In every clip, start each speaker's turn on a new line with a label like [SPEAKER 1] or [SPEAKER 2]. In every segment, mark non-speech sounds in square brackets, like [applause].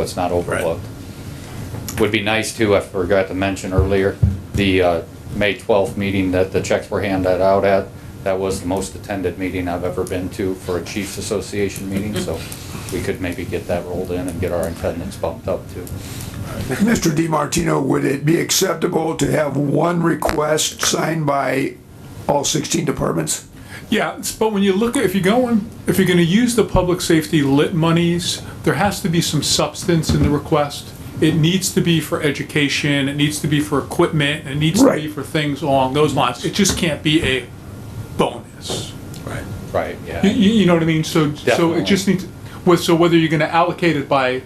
[SPEAKER 1] it's not overlooked. Would be nice too, I forgot to mention earlier, the uh, May 12th meeting that the checks were handed out at, that was the most attended meeting I've ever been to for a Chiefs Association meeting, so we could maybe get that rolled in and get our attendance bumped up too.
[SPEAKER 2] Mr. DiMartino, would it be acceptable to have one request signed by all 16 departments?
[SPEAKER 3] Yeah, it's- but when you look at, if you're going, if you're gonna use the public safety lit monies, there has to be some substance in the request. It needs to be for education, it needs to be for equipment, it needs to be
[SPEAKER 2] Right.
[SPEAKER 3] for things along those lines. It just can't be a bonus.
[SPEAKER 1] Right,
[SPEAKER 2] [laughs]
[SPEAKER 3] You,
[SPEAKER 1] yeah.
[SPEAKER 3] you you know what I mean? So, so
[SPEAKER 1] Definitely.
[SPEAKER 3] it just needs, with, so whether you're gonna allocate it by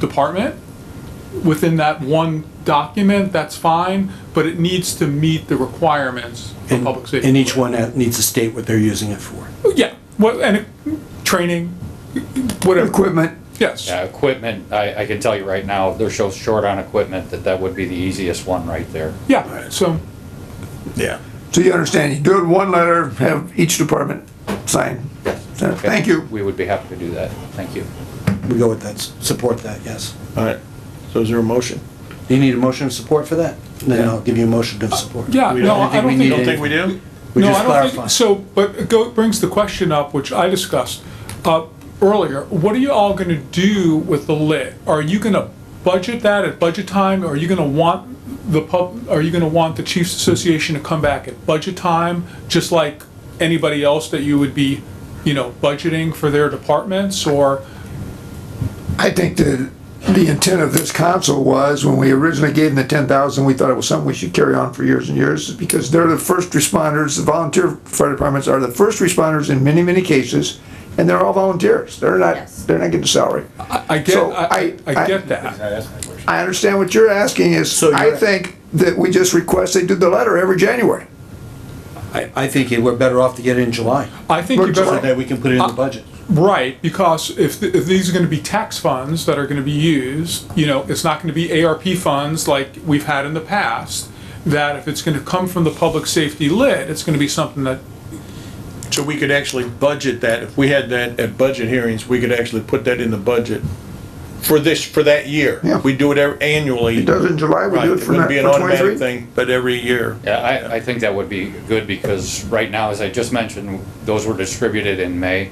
[SPEAKER 3] department, within that one document, that's fine, but it needs to meet the requirements for
[SPEAKER 4] And,
[SPEAKER 3] public safety.
[SPEAKER 4] and
[SPEAKER 3] lit.
[SPEAKER 4] each one ha- needs to state what they're using it for.
[SPEAKER 3] Yeah, well, and it- training, whatever,
[SPEAKER 2] Equipment?
[SPEAKER 3] yes.
[SPEAKER 1] Yeah, equipment, I, I can tell you right now, they're so short on equipment that that would be the easiest one right there.
[SPEAKER 3] Yeah, so,
[SPEAKER 4] Yeah.
[SPEAKER 2] So you understand, you do it one letter, have each department sign. So,
[SPEAKER 1] Okay?
[SPEAKER 2] Uh, Thank you.
[SPEAKER 1] We would be happy to do that. Thank you.
[SPEAKER 4] We go with that, s- support that, yes.
[SPEAKER 5] All right, so is there a motion?
[SPEAKER 4] Do you need a motion of support for that? Then I'll give you a motion of support.
[SPEAKER 3] yeah,
[SPEAKER 5] We
[SPEAKER 3] no,
[SPEAKER 5] don't-
[SPEAKER 3] I don't
[SPEAKER 4] we
[SPEAKER 5] You
[SPEAKER 3] think.
[SPEAKER 5] don't think we do?
[SPEAKER 4] We
[SPEAKER 3] No,
[SPEAKER 4] just
[SPEAKER 3] I don't
[SPEAKER 4] clarify.
[SPEAKER 3] think, so, but it go, brings the question up, which I discussed, uh, earlier, what are you all gonna do with the lit? Are you gonna budget that at budget time, are you gonna want the pub, are you gonna want the Chiefs Association to come back at budget time, just like anybody else that you would be, you know, budgeting for their departments, or?
[SPEAKER 2] I think the, the intent of this council was, when we originally gave them the ten thousand, we thought it was something we should carry on for years and years, because they're the first responders, the volunteer fire departments are the first responders in many, many cases, and they're all volunteers, they're not,
[SPEAKER 6] Yes.
[SPEAKER 2] they're not getting a salary.
[SPEAKER 3] I get,
[SPEAKER 2] So,
[SPEAKER 3] I,
[SPEAKER 2] I-
[SPEAKER 3] I
[SPEAKER 2] I-
[SPEAKER 3] get that.
[SPEAKER 2] I understand what you're asking is,
[SPEAKER 4] So
[SPEAKER 2] I
[SPEAKER 4] you're-
[SPEAKER 2] think that we just request they do the letter every January.
[SPEAKER 4] I, I think we're better off to get it in July,
[SPEAKER 3] I think you
[SPEAKER 4] so
[SPEAKER 3] better,
[SPEAKER 4] that we can put it in
[SPEAKER 3] Uh,
[SPEAKER 4] the budget.
[SPEAKER 3] right, because if, th- if these are gonna be tax funds that are gonna be used, you know, it's not gonna be ARP funds like we've had in the past, that if it's gonna come from the public safety lid, it's gonna be something that,
[SPEAKER 5] So we could actually budget that, if we had that at budget hearings, we could actually put that in the budget for this, for that year.
[SPEAKER 2] Yeah.
[SPEAKER 5] We do it ev- annually.
[SPEAKER 2] It does in July, we
[SPEAKER 5] Right,
[SPEAKER 2] do it
[SPEAKER 5] it
[SPEAKER 2] for
[SPEAKER 5] wouldn't be an automatic
[SPEAKER 2] twenty-three.
[SPEAKER 5] thing, but every year.
[SPEAKER 1] Yeah, I, I think that would be good because right now, as I just mentioned, those were distributed in May.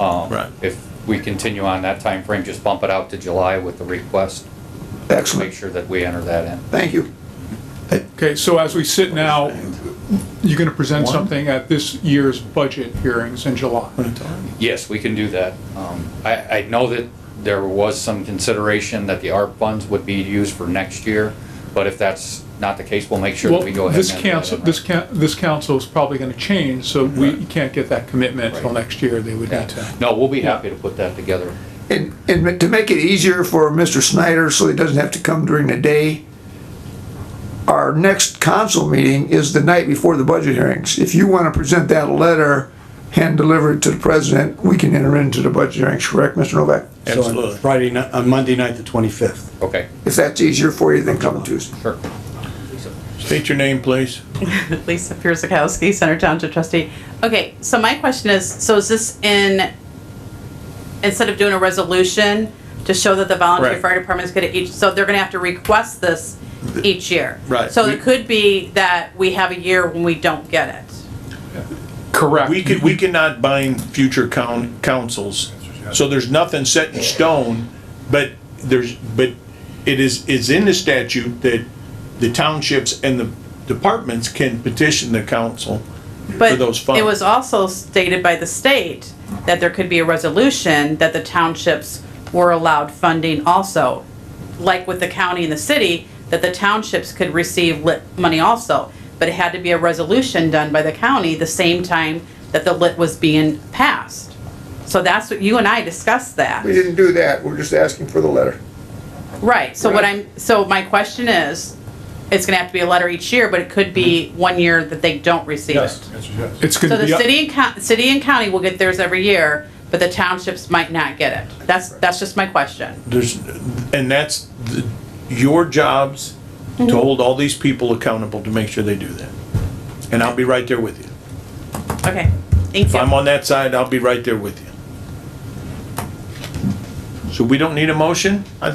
[SPEAKER 1] Um,
[SPEAKER 5] Right.
[SPEAKER 1] If we continue on that time frame, just bump it out to July with the request, make
[SPEAKER 2] Excellent,
[SPEAKER 1] sure that we enter that in.
[SPEAKER 2] thank you.
[SPEAKER 3] okay, so as we sit now, you're gonna present something at this year's budget hearings in July.
[SPEAKER 1] Yes, we can do that. Um, I, I know that there was some consideration that the ARP funds would be used for next year, but if that's not the case, we'll make sure that we go
[SPEAKER 3] Well,
[SPEAKER 1] ahead. and
[SPEAKER 3] this
[SPEAKER 1] enter that
[SPEAKER 3] council,
[SPEAKER 1] in.
[SPEAKER 3] this coun, this council's probably gonna change, so we can't get that commitment till
[SPEAKER 1] Right.
[SPEAKER 3] next year, they would need to.
[SPEAKER 1] Yeah. No, we'll be happy to put that together.
[SPEAKER 2] And, and to make it easier for Mr. Snyder, so he doesn't have to come during the day, our next council meeting is the night before the budget hearings. If you want to present that letter, hand deliver it to the president, we can enter into the budget hearings, correct, Mr. Novak?
[SPEAKER 4] So on
[SPEAKER 5] Absolutely.
[SPEAKER 4] Friday, ni- on Monday night, the twenty-fifth.
[SPEAKER 1] Okay,
[SPEAKER 2] If that's easier for you, then come Tuesday.
[SPEAKER 1] sure.
[SPEAKER 5] State your name, please.
[SPEAKER 6] Lisa Pierzakowski, Center Township trustee. Okay, so my question is, so is this in, instead of doing a resolution to show that the volunteer
[SPEAKER 5] Right.
[SPEAKER 6] fire department is gonna each, so they're gonna have to request this each year?
[SPEAKER 5] Right.
[SPEAKER 6] So
[SPEAKER 5] We-
[SPEAKER 6] it could be that we have a year when we don't get it.
[SPEAKER 3] Correct.
[SPEAKER 5] We could, we cannot bind future coun, councils, so there's nothing set in stone, but there's, but it is, it's in the statute that the townships and the departments can petition the council for
[SPEAKER 6] But
[SPEAKER 5] those funds.
[SPEAKER 6] it was also stated by the state that there could be a resolution that the townships were allowed funding also, like with the county and the city, that the townships could receive lit money also. But it had to be a resolution done by the county the same time that the lit was being passed. So that's what, you and I discussed that.
[SPEAKER 2] We didn't do that, we're just asking for the letter.
[SPEAKER 6] Right, so what
[SPEAKER 2] Right.
[SPEAKER 6] I'm, so my question is, it's gonna have to be a letter each year, but it could be
[SPEAKER 2] Mm-hmm.
[SPEAKER 6] one year that they don't receive it.
[SPEAKER 3] It's [laughs]
[SPEAKER 6] So
[SPEAKER 3] gonna
[SPEAKER 6] the
[SPEAKER 3] be. up-
[SPEAKER 6] city and county, city and county will get theirs every year, but the townships might not get it. That's, that's just my question.
[SPEAKER 5] There's, and that's the- your jobs to hold all these people accountable to make sure they do that. And I'll be right there with you.
[SPEAKER 6] Okay, thank
[SPEAKER 5] If I'm
[SPEAKER 6] you.
[SPEAKER 5] on that side, I'll be right there with you. So we don't need a motion? I